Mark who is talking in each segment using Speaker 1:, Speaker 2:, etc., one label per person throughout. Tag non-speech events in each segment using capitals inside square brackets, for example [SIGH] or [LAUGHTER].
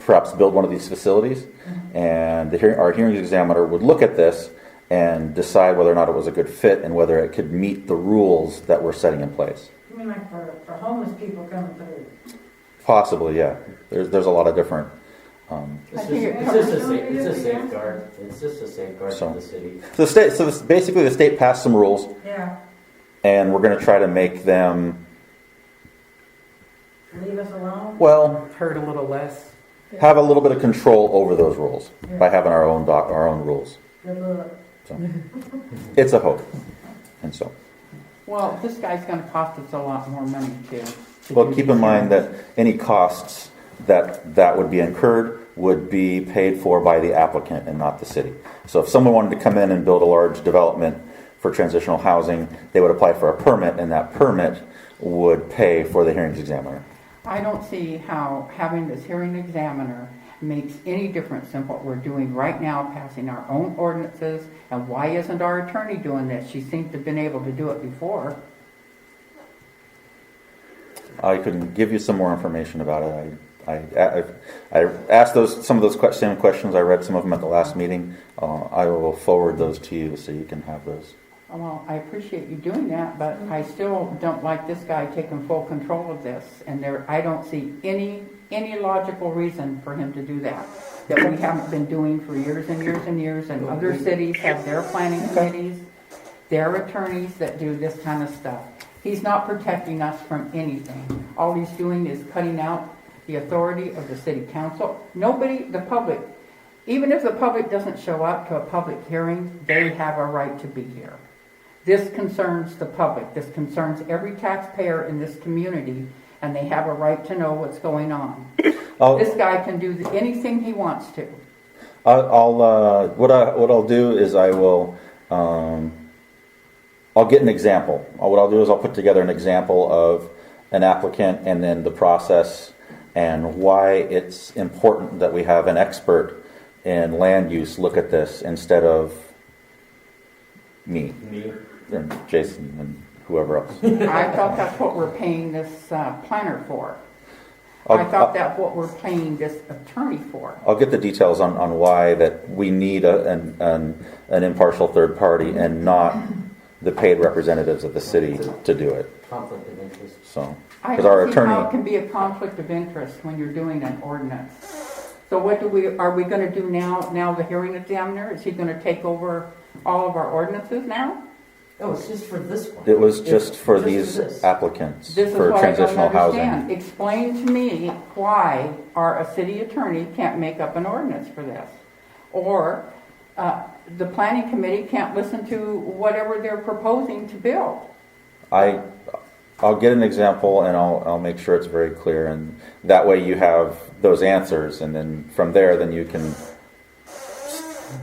Speaker 1: perhaps build one of these facilities, and the, hear- our hearings examiner would look at this and decide whether or not it was a good fit and whether it could meet the rules that we're setting in place.
Speaker 2: You mean like for, for homeless people coming through?
Speaker 1: Possibly, yeah. There's, there's a lot of different, um,
Speaker 2: I
Speaker 3: It's just,
Speaker 2: think it
Speaker 3: it's
Speaker 2: covers
Speaker 3: just a sa-
Speaker 2: all the
Speaker 3: it's
Speaker 2: areas,
Speaker 3: a
Speaker 2: yeah.
Speaker 3: safeguard, it's just a safeguard
Speaker 1: So.
Speaker 3: for the city.
Speaker 1: so the state, so this, basically the state passed some rules
Speaker 2: Yeah,
Speaker 1: and we're going to try to make them,
Speaker 2: leave us alone?
Speaker 1: well,
Speaker 4: Hurt a little less.
Speaker 1: have a little bit of control over those rules by having our own doc, our own rules.
Speaker 2: Good luck.
Speaker 1: It's a hope. And so,
Speaker 4: Well, this guy's gonna cost us a lot more money too. to
Speaker 1: well,
Speaker 4: do
Speaker 1: keep
Speaker 4: these
Speaker 1: in mind
Speaker 4: hearings.
Speaker 1: that any costs that, that would be incurred would be paid for by the applicant and not the city. So if someone wanted to come in and build a large development for transitional housing, they would apply for a permit and that permit would pay for the hearings examiner.
Speaker 4: I don't see how having this hearing examiner makes any difference than what we're doing right now, passing our own ordinances. And why isn't our attorney doing this? She seems to have been able to do it before.
Speaker 1: I can give you some more information about it. I, I, I I asked those, some of those que- same questions. I read some of them at the last meeting. Uh, I will forward those to you so you can have those.
Speaker 4: Well, I appreciate you doing that, but I still don't like this guy taking full control of this. And there, I don't see any, any logical reason for him to do that, that we haven't been doing for years and years and years. And other cities have their planning committees, their attorneys that do this kind of stuff. He's not protecting us from anything. All he's doing is cutting out the authority of the city council. Nobody, the public, even if the public doesn't show up to a public hearing, they have a right to be here. This concerns the public, this concerns every taxpayer in this community, and they have a right to know what's going on.
Speaker 1: I'll,
Speaker 4: This guy can do anything he wants to.
Speaker 1: I'll, I'll, uh, what I, what I'll do is I will, um, I'll get an example. Uh, What I'll do is I'll put together an example of an applicant and then the process and why it's important that we have an expert in land use look at this instead of me.
Speaker 3: Me,
Speaker 1: and Jason and whoever else.
Speaker 4: [LAUGHS] I thought that's what we're paying this uh, planner for. I
Speaker 1: I'll-
Speaker 4: thought that's what we're paying this attorney for.
Speaker 1: I'll get the details on, on why that we need a, an, an, an impartial third party and not the paid representatives of the city to do it,
Speaker 3: conflict of interest.
Speaker 1: so.
Speaker 4: I
Speaker 1: Because our
Speaker 4: don't see how it
Speaker 1: attorney,
Speaker 4: can be a conflict of interest when you're doing an ordinance. So what do we, are we gonna do now, now the hearing examiner, is he gonna take over all of our ordinances now?
Speaker 3: No, Oh, it's just for this one.
Speaker 1: it was just
Speaker 3: It's
Speaker 1: for
Speaker 3: just
Speaker 1: these
Speaker 3: this.
Speaker 1: applicants,
Speaker 4: This is
Speaker 1: for
Speaker 4: what I don't
Speaker 1: transitional housing.
Speaker 4: understand. Explain to me why our, a city attorney can't make up an ordinance for this? Or, uh, the planning committee can't listen to whatever they're proposing to build?
Speaker 1: I, I'll get an example and I'll, I'll make sure it's very clear and that way you have those answers and then from there, then you can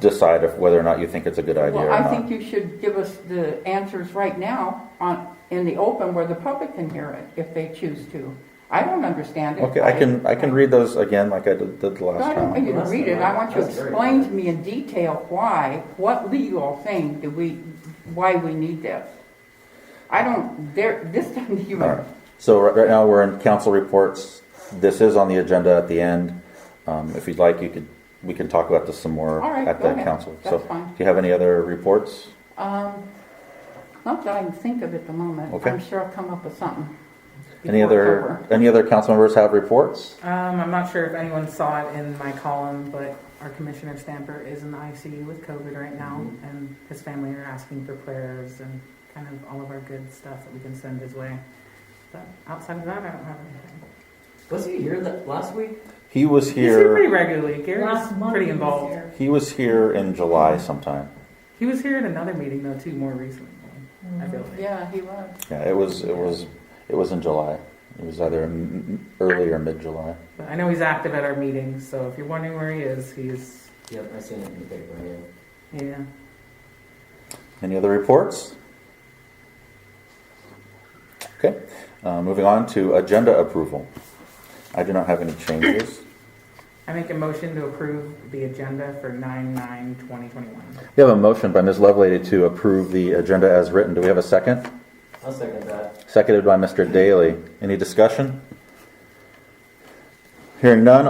Speaker 1: decide if whether or not you think it's a good idea or
Speaker 4: Well, I think
Speaker 1: not.
Speaker 4: you should give us the answers right now on, in the open where the public can hear it if they choose to. I don't understand it.
Speaker 1: Okay, I can, I can read those again like I did did the
Speaker 4: No,
Speaker 1: last
Speaker 4: I
Speaker 1: time.
Speaker 4: don't want you to read it. I want you to
Speaker 3: That's very
Speaker 4: explain
Speaker 3: good.
Speaker 4: to me in detail why, what legal thing do we, why we need this. I don't, there, this [LAUGHS] doesn't
Speaker 1: All
Speaker 4: even,
Speaker 1: right. So right right now, we're in council reports. This is on the agenda at the end. Um, If you'd like, you could, we can talk about this some more
Speaker 4: All right,
Speaker 1: at
Speaker 4: go
Speaker 1: the
Speaker 4: ahead.
Speaker 1: council. So
Speaker 4: That's fine.
Speaker 1: do you have any other reports?
Speaker 4: um, not that I can think of at the moment.
Speaker 1: Okay.
Speaker 4: I'm sure I'll come up with something.
Speaker 1: Any
Speaker 4: before it's
Speaker 1: other,
Speaker 4: over.
Speaker 1: any other council members have reports?
Speaker 5: Um, I'm not sure if anyone saw it in my column, but our Commissioner Stamper is in the ICU with COVID right now, and his family are asking for prayers and kind of all of our good stuff that we can send his way. But outside of that, I don't have anything.
Speaker 3: Was he here that, last week?
Speaker 1: He was
Speaker 5: He's here
Speaker 1: here,
Speaker 5: pretty regularly. Gary's
Speaker 2: Last month
Speaker 5: pretty
Speaker 2: he was
Speaker 5: involved.
Speaker 2: here.
Speaker 1: he was here in July sometime.
Speaker 5: He was here at another meeting though, too, more recently. I feel like.
Speaker 4: Yeah, he was.
Speaker 1: Yeah, it was, it was, it was in July. It was either m- m- early or mid-July.
Speaker 5: But I know he's active at our meetings, so if you're wondering where he is, he's
Speaker 3: Yep, I seen it in the paper, yeah.
Speaker 5: yeah.
Speaker 1: Any other reports? Okay, uh, moving on to agenda approval. I do not have any changes.
Speaker 5: I make a motion to approve the agenda for nine nine twenty twenty one.
Speaker 1: We have a motion by Ms. Lovelady to approve the agenda as written. Do we have a second?
Speaker 3: I'll second that.
Speaker 1: Seconded by Mr. Daly. Any discussion? Hearing none,